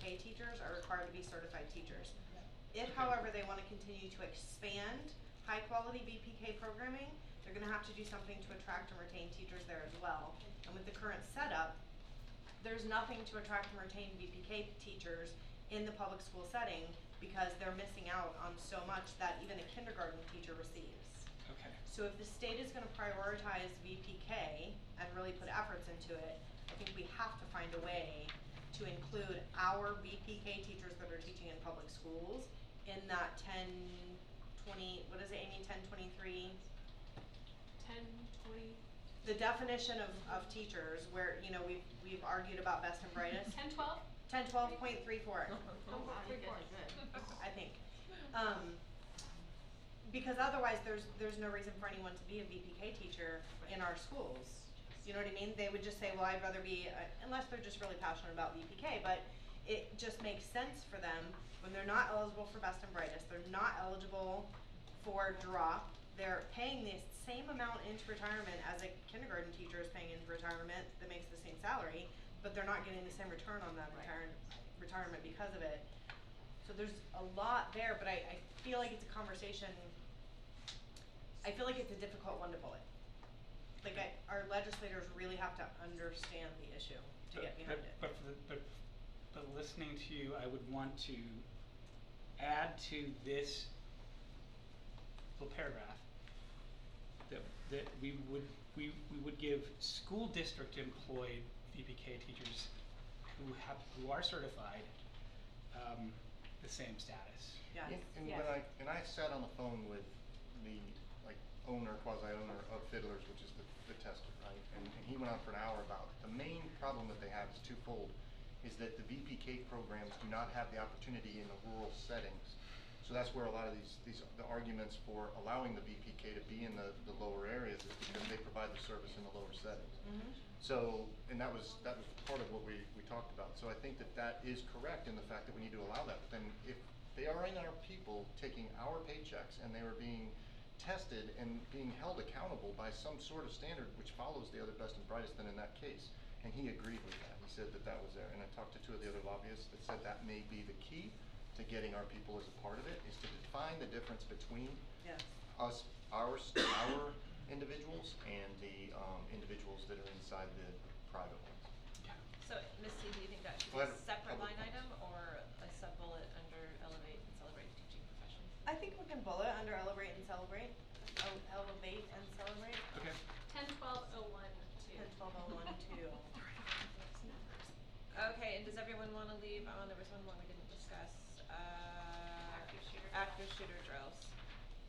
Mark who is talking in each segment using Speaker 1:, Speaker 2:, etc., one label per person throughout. Speaker 1: K teachers are required to be certified teachers. If however, they wanna continue to expand high-quality BPK programming, they're gonna have to do something to attract and retain teachers there as well. And with the current setup, there's nothing to attract and retain BPK teachers in the public school setting because they're missing out on so much that even a kindergarten teacher receives.
Speaker 2: Okay.
Speaker 1: So if the state is gonna prioritize VPK and really put efforts into it, I think we have to find a way to include our VPK teachers that are teaching in public schools in that ten twenty, what is it, Amy, ten twenty-three?
Speaker 3: Ten, twenty,
Speaker 1: The definition of, of teachers where, you know, we've, we've argued about best and brightest,
Speaker 3: ten, twelve?
Speaker 1: ten twelve point three four,
Speaker 3: Oh, wow, you
Speaker 4: you
Speaker 3: guys
Speaker 4: guys
Speaker 3: are good.
Speaker 1: I think. Um, because otherwise, there's, there's no reason for anyone to be a VPK teacher in our schools. You know what I mean? They would just say, well, I'd rather be, a-" unless they're just really passionate about VPK, but it just makes sense for them when they're not eligible for best and brightest, they're not eligible for drop, they're paying the same amount into retirement as a kindergarten teacher is paying into retirement that makes the same salary, but they're not getting the same return on that
Speaker 4: Right.
Speaker 1: retirement, retirement because of it. So there's a lot there, but I, I feel like it's a conversation, I feel like it's a difficult one to bullet. Like I, our legislators really have to understand the issue to
Speaker 2: But-
Speaker 1: get behind it.
Speaker 2: But, but, for the- but, but listening to you, I would want to add to this little paragraph that, that we would, we, we would give school district employed VPK teachers who have, who are certified, um, the same status.
Speaker 1: Yeah.
Speaker 5: And- And when I, and I sat on the phone with the, like, owner, quasi-owner of Fiddlers, which is the, the tester, right? And, and he went on for an hour about, the main problem that they have is twofold, is that the VPK programs do not have the opportunity in the rural settings. So that's where a lot of these, these, the arguments for allowing the VPK to be in the, the lower areas is because they provide the service in the lower settings.
Speaker 1: Mhm.
Speaker 5: So, and that was, that was part of what we, we talked about, so I think that that is correct in the fact that we need to allow that, but then if they are in our people taking our paychecks and they are being tested and being held accountable by some sort of standard which follows the other best and brightest, then in that case, and he agreed with that, he said that that was there, and I talked to two of the other lobbyists that said that may be the key to getting our people as a part of it, is to define the difference between
Speaker 1: Yes.
Speaker 5: us, our, s- our individuals and the, um, individuals that are inside the private ones.
Speaker 4: So, Misty, do you think that should
Speaker 5: Well, I
Speaker 4: be a
Speaker 5: don't-
Speaker 4: separate
Speaker 5: public
Speaker 4: line item
Speaker 5: comments.
Speaker 4: or a sub-bullet under elevate and celebrate teaching professions?
Speaker 1: I think we can bullet under elevate and celebrate, El- elevate and celebrate,
Speaker 2: Okay,
Speaker 3: Ten, twelve, oh, one, two.
Speaker 1: ten twelve oh one two.
Speaker 4: Okay, and does everyone wanna leave on, there was one more we didn't discuss, uh.
Speaker 3: Active shooter
Speaker 4: active
Speaker 3: drills.
Speaker 4: shooter drills.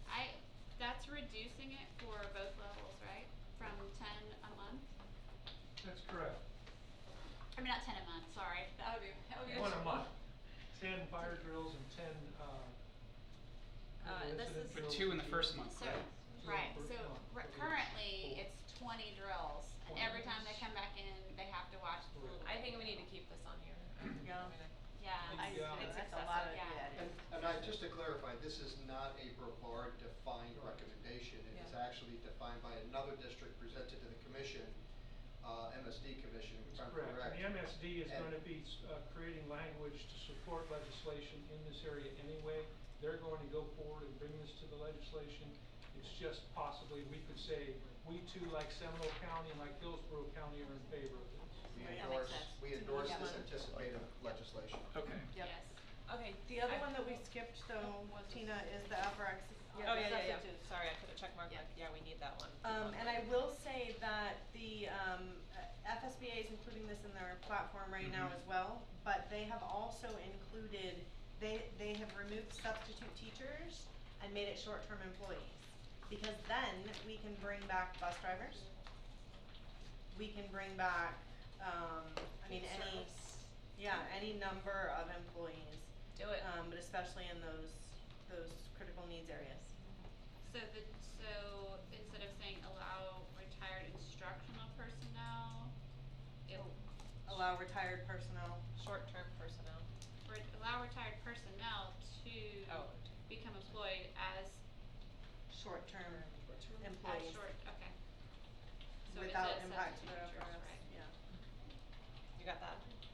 Speaker 6: I, that's reducing it for both levels, right? From ten a month,
Speaker 7: That's correct.
Speaker 6: I mean, not ten a month, sorry,
Speaker 4: Oh,
Speaker 6: that would be, that would be.
Speaker 7: One a month. Ten fire drills and ten, uh.
Speaker 4: Uh, this
Speaker 7: incident
Speaker 4: is-
Speaker 2: but
Speaker 7: drills
Speaker 2: two in
Speaker 7: and
Speaker 2: the first month,
Speaker 6: So,
Speaker 2: right?
Speaker 6: right,
Speaker 7: Yeah,
Speaker 6: so r-
Speaker 7: per- per-
Speaker 6: currently,
Speaker 7: per-
Speaker 6: it's twenty drills, and every time they come back in, they have to watch the
Speaker 7: Right.
Speaker 4: I think we need to keep this on here.
Speaker 1: Yeah.
Speaker 4: I'm gonna-
Speaker 6: Yeah,
Speaker 1: I,
Speaker 7: Yeah.
Speaker 1: that's
Speaker 4: It's
Speaker 1: a lot of,
Speaker 4: excessive,
Speaker 6: yeah.
Speaker 1: yeah, it
Speaker 7: And-
Speaker 1: is.
Speaker 8: And I, just to clarify, this is not a Brevard defined recommendation. It is
Speaker 4: Yeah.
Speaker 8: actually defined by another district presented to the commission, uh, MSD commission, if I'm correct.
Speaker 7: Correct, and the MSD is
Speaker 8: And-
Speaker 7: gonna be, uh, creating language to support legislation in this area anyway. They're going to go forward and bring this to the legislation. It's just possibly, we could say, we too, like Seminole County and like Hillsborough County are in favor of this.
Speaker 8: We
Speaker 1: Right, that makes
Speaker 8: endorse,
Speaker 6: sense.
Speaker 8: we
Speaker 6: To me,
Speaker 8: endorse
Speaker 1: that
Speaker 8: this
Speaker 1: one-
Speaker 8: anticipated legislation.
Speaker 2: Okay.
Speaker 1: Yep.
Speaker 6: yes.
Speaker 4: Okay.
Speaker 1: The other
Speaker 4: I-
Speaker 1: one that we skipped though,
Speaker 4: Was this-
Speaker 1: Tina, is the FRX,
Speaker 4: Oh,
Speaker 1: yeah,
Speaker 4: yeah,
Speaker 1: the
Speaker 4: yeah, yeah,
Speaker 1: substitutes.
Speaker 4: sorry, I put a check mark,
Speaker 1: Yeah.
Speaker 4: like, yeah, we need that one. Keep
Speaker 1: Um,
Speaker 4: on
Speaker 1: and I
Speaker 4: going.
Speaker 1: will say that the, um, uh, FSBA is including this in their platform right now
Speaker 2: Mhm.
Speaker 1: as well, but they have also included, they, they have removed substitute teachers and made it short-term employees. Because then we can bring back bus drivers, we can bring back, um, I mean, any, yeah, any number of employees,
Speaker 4: Do it.
Speaker 1: um, but especially in those, those critical needs areas.
Speaker 6: So the, so instead of saying allow retired instructional personnel, it,
Speaker 1: Oh. Allow retired personnel
Speaker 4: Short-term personnel.
Speaker 6: re- allow retired personnel to
Speaker 4: Oh.
Speaker 6: become employed as,
Speaker 1: short-term
Speaker 6: as
Speaker 1: employees
Speaker 6: short, okay. So it
Speaker 1: without
Speaker 6: says
Speaker 1: impact to
Speaker 6: substitute
Speaker 1: their
Speaker 6: teachers,
Speaker 1: FRS,
Speaker 6: right?
Speaker 1: yeah.
Speaker 4: You got that?